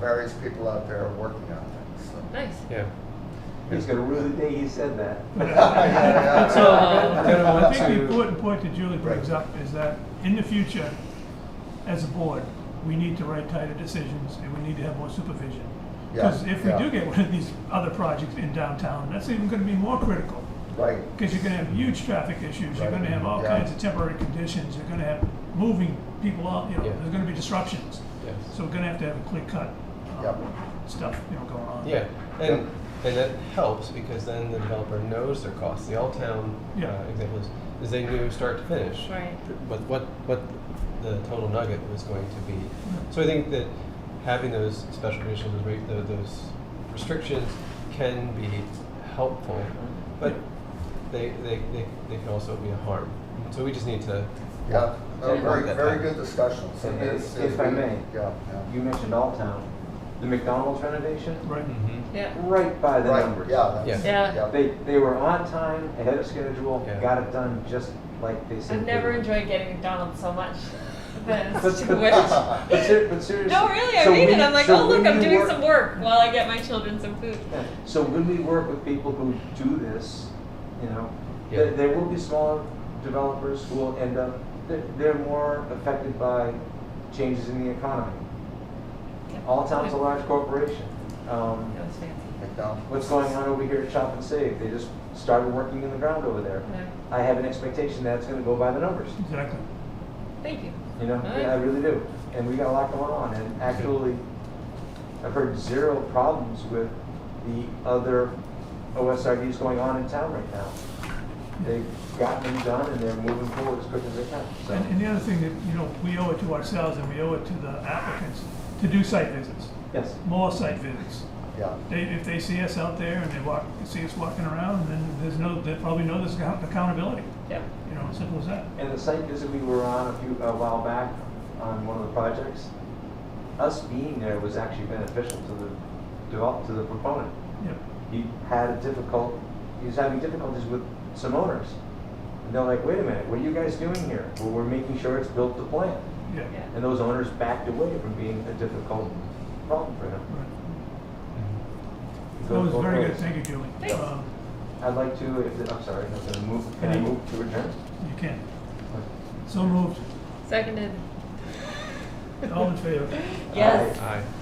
various people out there working on things, so. Nice. Yeah. He's gonna rue the day he said that. yeah, So, uh, yeah. I think the important point that Julie brings Right. up is that in the future, as a board, we need to write tighter decisions and we need to have more supervision. Yeah, Because if we yeah. do get one of these other projects in downtown, that's even gonna be more critical. Right, Because you're gonna have huge traffic issues, you're Right. gonna have all Yeah. kinds of temporary conditions, you're gonna have moving people out, you know, Yeah. there's gonna be disruptions. Yes. So we're gonna have to have a clear cut, Yep. um, stuff, you know, going on. Yeah, and and that helps because then the developer knows their costs. The all town Yeah. uh, example is, is they knew start to finish, Right. But what what the total nugget was going to be. So I think that having those special conditions, those, re- tho- those restrictions, can be helpful, but they they, they they can also be a harm. So we just need to yeah, no, Yeah. very, very good discussion, so If- it's. if I may. Yeah, yeah. You mentioned All Town, the McDonald's renovation, Right, Hmm. Mm-hmm. Yeah. right by the Right, numbers. yeah, Yeah. that's, Yeah. yeah. They, they were on time, ahead of schedule, Yeah. got it done just like they said. I've they never would. enjoyed getting McDonald's so much. That's But- too but- much. But ser- but seriously. No, really, I so read it. we- I'm like, so oh look, when I'm you doing work- some work while I get my children some food. Yeah. So when we work with people who do this, you know, there, Yeah. there will be smaller developers who will end up, they're, they're more affected by changes in the economy. All towns a large corporation. Um, That was fancy. McDonald's. what's going on over here at Shop and Save? They just started working in the ground over there. Yeah. I have an expectation that's gonna go by the numbers. exactly. Thank you. You know, Right. yeah, I really do. And we got a lot going on. And actually, I've heard zero problems with the other OSRDs going on in town right now. They've gotten them done and they're moving forward as quick as they can. And, So, and the other thing that, you know, we owe it to ourselves and we owe it to the applicants to do site visits, yes. more site visits. Yeah, They, if they see us out there and they walk, see us walking around, then there's no, they probably know there's account- accountability, Yep. you know, simple as that. And the site visit we were on a few, a while back on one of the projects, us being there was actually beneficial to the develop, to the proponent. Yep, he had a difficult, he was having difficulties with some owners. And they're like, wait a minute, what are you guys doing here? Well, we're making sure it's built to plan. yeah, Yeah. And those owners backed away from being a difficult problem for him. right. That Go- was go very for good, it. thank you, Julie. Thanks. Um, I'd like to, if, the- I'm sorry, I'm gonna move, can I Any- move to adjourn? You can. So moved, Seconded. all in favor? Yes. Aye. I.